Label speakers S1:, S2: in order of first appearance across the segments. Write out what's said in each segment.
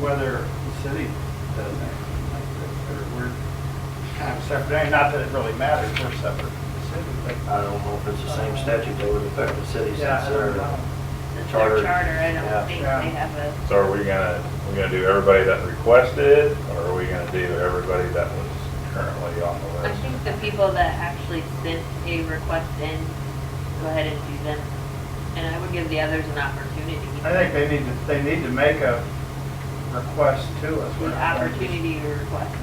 S1: whether the city does anything like this, or we're kind of separate, and not that it really matters, we're separate from the city, but.
S2: I don't know if it's the same statute that would affect the cities
S1: Yeah,
S2: since
S1: I don't know.
S2: they're
S3: Their
S2: charter.
S3: Charter, I
S2: Yeah.
S3: don't think they
S1: Yeah.
S3: have a,
S4: So are we gonna, we gonna do everybody that requested, or are we gonna do everybody that was currently on the
S3: I
S4: list?
S3: think the people that actually sent a request in, go ahead and do them. And I would give the others an opportunity.
S1: I think they need to, they need to make a request to us.
S3: The opportunity to request.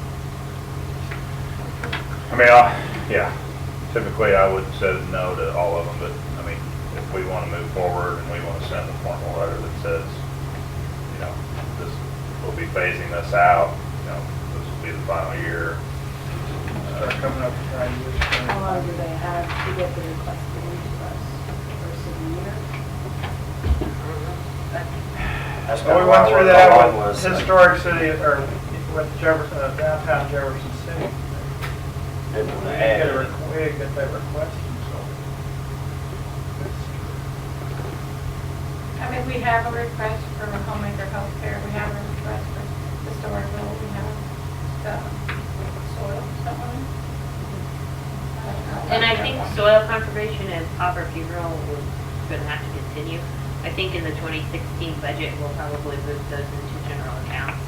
S4: I mean, I, yeah, typically I would say no to all of them, but, I mean, if we wanna move forward and we wanna send a formal letter that says, you know, this, we'll be phasing this out, you know, this will be the final year.
S1: Start Uh, coming up with ideas.
S5: How long do they have to get the request in to us? First of the year?
S3: I think
S2: That's
S1: So
S2: kinda
S1: we
S2: why
S1: went through
S2: we're
S1: that
S2: along
S1: with
S2: like,
S1: historic city, or with Jefferson, uh, downtown Jefferson City.
S2: didn't
S1: We
S2: wanna
S1: didn't
S2: add
S1: get a,
S2: it.
S1: requ- we didn't get that request,
S6: I mean, we have a request for homemaker healthcare, we have a request for historical, we have the soil, someone.
S3: And I think soil conservation and pauper funeral was gonna have to continue. I think in the 2016 budget, we'll probably move those into general accounts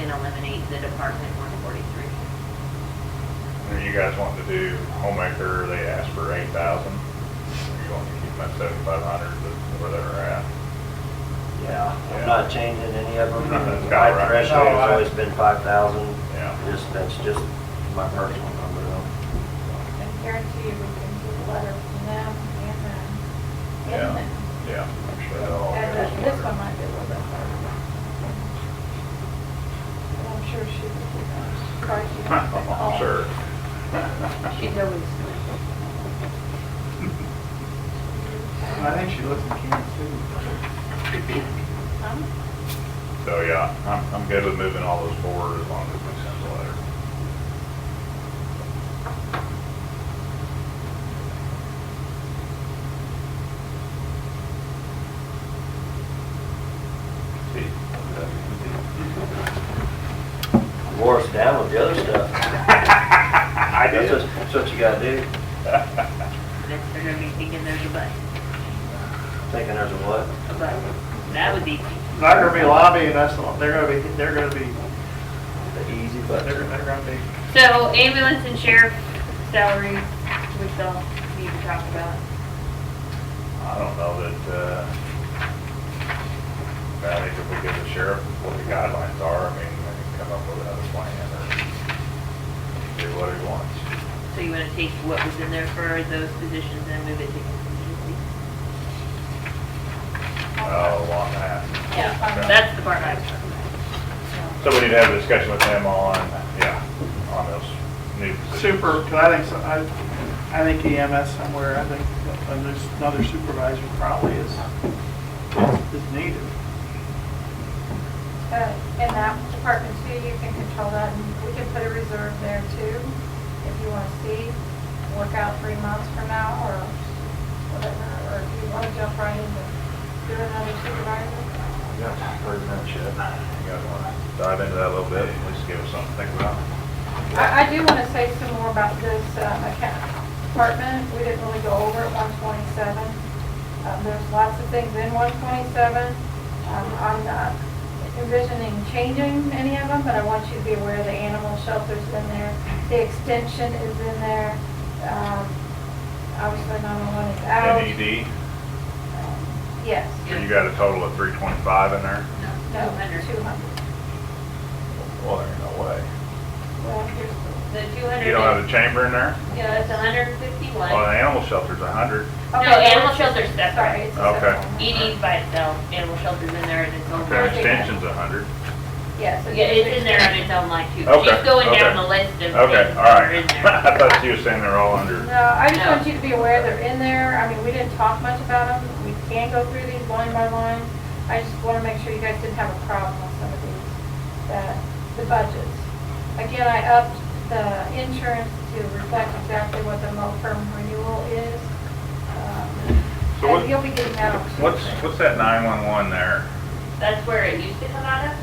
S3: and eliminate the Department 143.
S4: And you guys want to do homemaker, they asked for eight thousand, you want to keep them at seventy-five hundred, where they're at.
S2: Yeah,
S4: Yeah.
S2: I'm not changing any of them.
S4: That's about
S2: My
S4: right.
S2: threshold's
S1: No, I-
S2: always been five thousand.
S4: Yeah.
S2: Just, that's just my personal number though.
S6: I guarantee you, we can get a letter from them and then, and
S4: Yeah, Oh,
S6: then.
S4: yeah, I'm sure that'll all
S6: And then
S4: go.
S6: this one might be a little bit harder. But I'm sure she would be, surprised you don't think all-
S4: I'm sure.
S3: She's always
S1: And I think she lives in Kansas City.
S6: Um,
S4: So, yeah, I'm, I'm good with moving all those forward as long as we send the letter. See, what does that mean?
S2: Wore us down with the other stuff.
S4: I
S2: That's what, that's what you gotta do.
S3: They're gonna be thinking there's a bus,
S2: Thinking there's a what?
S3: a bus. That was easy.
S1: They're gonna be lobbying us, a lot. they're gonna be, they're gonna be,
S2: The easy
S1: they're,
S2: button.
S1: they're gonna be.
S3: So ambulance and sheriff salaries, we still need to talk about.
S4: I don't know that, uh, I think if we give the sheriff what the guidelines are, I mean, they can come up with another plan or do what he wants.
S3: So you wanna take what was in there for those positions and move it to contingency?
S4: Oh, on that.
S6: Yeah.
S3: That's the part I was talking about.
S4: So we need to have a discussion with him on, yeah, on those new positions.
S1: Super, because I think, so. I, I think EMS somewhere, I think another another supervisor probably is, is needed.
S6: But uh, in that department too, you can control that, and we can put a reserve there too, if you want to see, work out three months from now, or whatever, or if you want to jump right into doing another supervisor.
S4: Yeah, pretty much it. You guys wanna dive into that a little bit, at least give us something to think about?
S6: I, I do want to say some more about this um, account department, we didn't really go over it, one twenty-seven. Um, There's lots of things in one twenty-seven, Um, I'm not envisioning changing any of them, but I want you to be aware the animal shelter's in there, the extension is in there, Um, obviously nine-one-one is
S4: Oh.
S6: out. Um,
S4: NED,
S6: Yes,
S4: E so you got a total of three twenty-five in there?
S6: no,
S3: No, two hundred.
S6: two hundred.
S4: Well, there ain't no way.
S6: Well, here's the,
S3: The two hundred.
S4: You don't have a chamber in there?
S3: Yeah, it's hundred and
S4: Well,
S3: fifty-one.
S4: the animal shelter's a hundred.
S3: No,
S6: Okay,
S3: animal shelter's
S6: sorry.
S3: separate.
S6: it's a
S4: Okay.
S6: separate one.
S3: ED's by itself, animal shelter's in there and its own
S4: Okay,
S3: line.
S4: extension's a hundred.
S6: Yeah, so.
S3: Yeah, it's in there
S6: there's-
S3: on its own line too.
S4: Okay,
S3: She's going
S4: okay.
S3: down the list of things
S4: Okay, all
S3: that are
S4: right.
S3: in there.
S4: I thought you were saying they're all under.
S6: No, I just
S3: No.
S6: want you to be aware they're in there. I mean, we didn't talk much about them. We can go through these line by line. I just want to make sure you guys didn't have a problem with some of these, that, the budgets. Again, I upped the insurance to reflect exactly what the long-term renewal is. Um,
S4: So what-
S6: And you'll be getting that on Tuesday.
S4: What's, what's that nine-one-one there?
S3: That's where it used to come out of.